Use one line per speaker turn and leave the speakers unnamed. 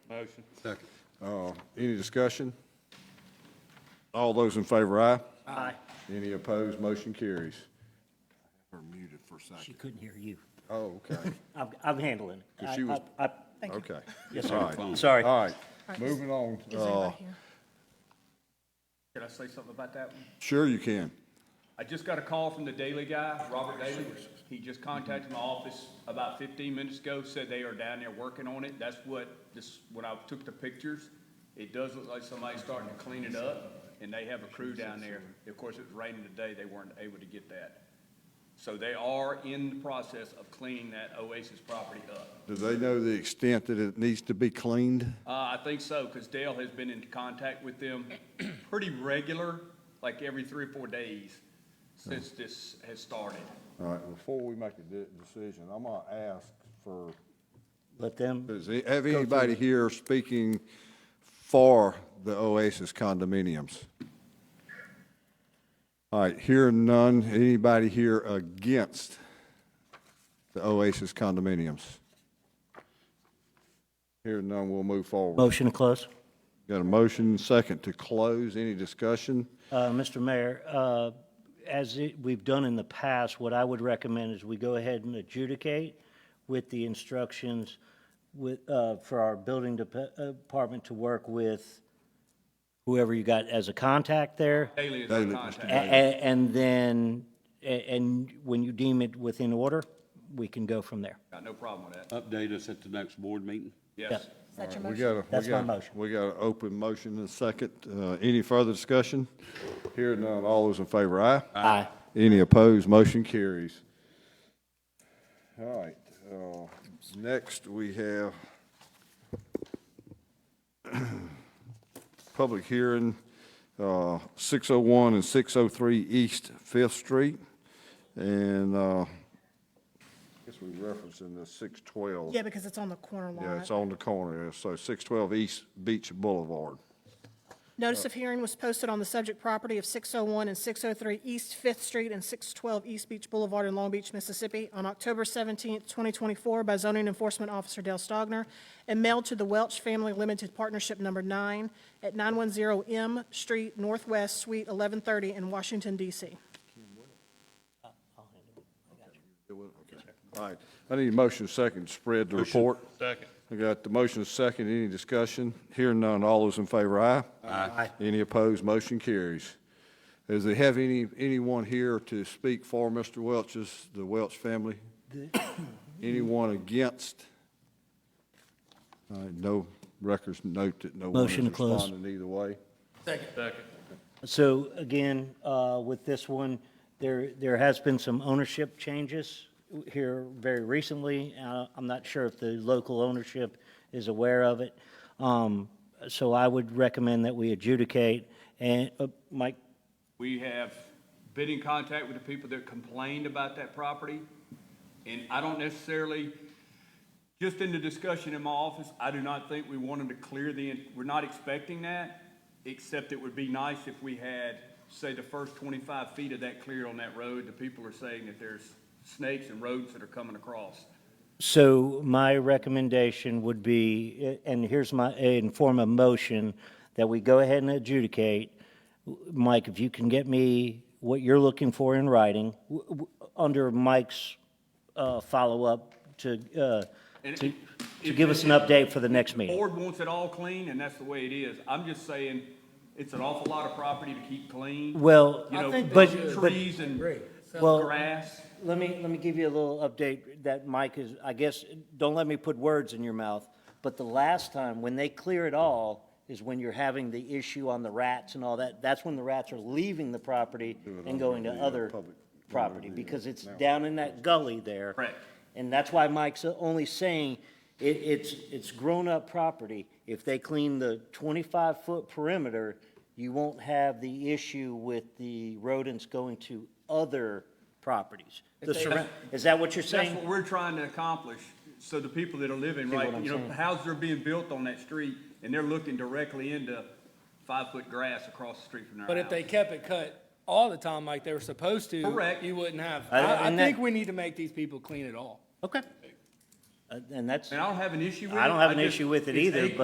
Motion.
Second.
Uh, Any discussion? All those in favor, aye? Aye. Any opposed, motion carries. Her muted for a
She
second.
couldn't hear you.
Oh, okay,
I'm, I'm handling it.
'Cause she was-
I- I-
okay.
Yes,
All right.
I- Sorry.
All right, moving on.
Is anybody
Uh,
here?
Can I say something about that one?
Sure you can.
I just got a call from the Daily guy, Robert Daly. He just contacted my office about fifteen minutes ago, said they are down there working on it. That's what, this, when I took the pictures, it does look like somebody's starting to clean it up, and they have a crew down there. Of course, it was raining today, they weren't able to get that. So they are in the process of cleaning that Oasis property up.
Do they know the extent that it needs to be cleaned?
Uh, I think so, because Dale has been in contact with them pretty regular, like every three or four days since this has started.
All right, before we make a de- decision, I'm gonna ask for,
Let them,
does, it- have anybody here speaking for the Oasis condominiums? All right, hearing none, anybody here against the Oasis condominiums? Hearing none, we'll move forward.
motion to close.
Got a motion, second to close, any discussion?
Uh, Mr. Mayor, uh, as it- we've done in the past, what I would recommend is we go ahead and adjudicate with the instructions with, uh, for our building dep- department to work with whoever you got as a contact there.
Daily is in
Daily, Mr.
A-
contact.
a- And then, a- and when you deem it within order, we can go from there.
Got no problem with that.
update us at the next board meeting?
Yes.
Is that your
We
motion?
got a.
That's my motion.
We got an open motion and a second. Uh, Any further discussion? Hearing none, all those in favor, aye?
Aye.
Any opposed, motion carries. All right, uh, next we have public hearing, uh, 601 and 603 East Fifth Street. And uh, I guess we referencing the 612.
Yeah, because it's on the corner
Yeah, it's
lot.
on the corner, yeah, so 612 East Beach Boulevard.
Notice of hearing was posted on the subject property of 601 and 603 East Fifth Street and 612 East Beach Boulevard in Long Beach, Mississippi, on October 17, 2024, by zoning enforcement officer Dale Stogner, and mailed to the Welch Family Limited Partnership Number 9 at 910 M Street Northwest, Suite 1130 in Washington, D.C.
All right, I need a motion second, to spread the report. Second. I got the motion second, any discussion? Hearing none, all those in favor, aye? Aye. Any opposed, motion carries. Does they have any, anyone here to speak for Mr. Welch's, the Welch family? Anyone against? All right, no records note that no one is
Motion to close.
responding either way.
So again, uh, with this one, there, there has been some ownership changes here very recently. Uh, I'm not sure if the local ownership is aware of it. Um, So I would recommend that we adjudicate and, uh, Mike,
We have been in contact with the people that complained about that property, and I don't necessarily, just in the discussion in my office, I do not think we want them to clear the, we're not expecting that, except it would be nice if we had, say, the first twenty-five feet of that cleared on that road. The people are saying that there's snakes and rodents that are coming across.
So my recommendation would be, eh, and here's my, in form of motion, that we go ahead and adjudicate. Mike, if you can get me what you're looking for in writing, w- w- under Mike's uh, follow-up to, uh,
And
to
it-
to
if-
give us an update for the next meeting.
Board wants it all clean, and that's the way it is. I'm just saying, it's an awful lot of property to keep clean.
Well,
You know,
but, but,
trees and
Well-
grass.
let me, let me give you a little update that Mike is, I guess, don't let me put words in your mouth, but the last time, when they clear it all, is when you're having the issue on the rats and all that, that's when the rats are leaving the property and going to other property, because it's down in that gully there.
Correct.
And that's why Mike's only saying, it, it's, it's grown-up property. If they clean the twenty-five foot perimeter, you won't have the issue with the rodents going to other properties. The surra- is that what you're
That's
saying?
what we're trying to accomplish, so the people that are living,
See what
right,
I'm
you know,
saying?
houses are being built on that street, and they're looking directly into five-foot grass across the street from their house.
But if they kept it cut all the time like they were supposed to,
Correct.
you wouldn't have.
I-
I, I
and that-
think we need to make these people clean it all.
Okay. Uh, And that's,
And I don't have an issue with it.
I don't have an
just-
issue with it
it's
either,
acres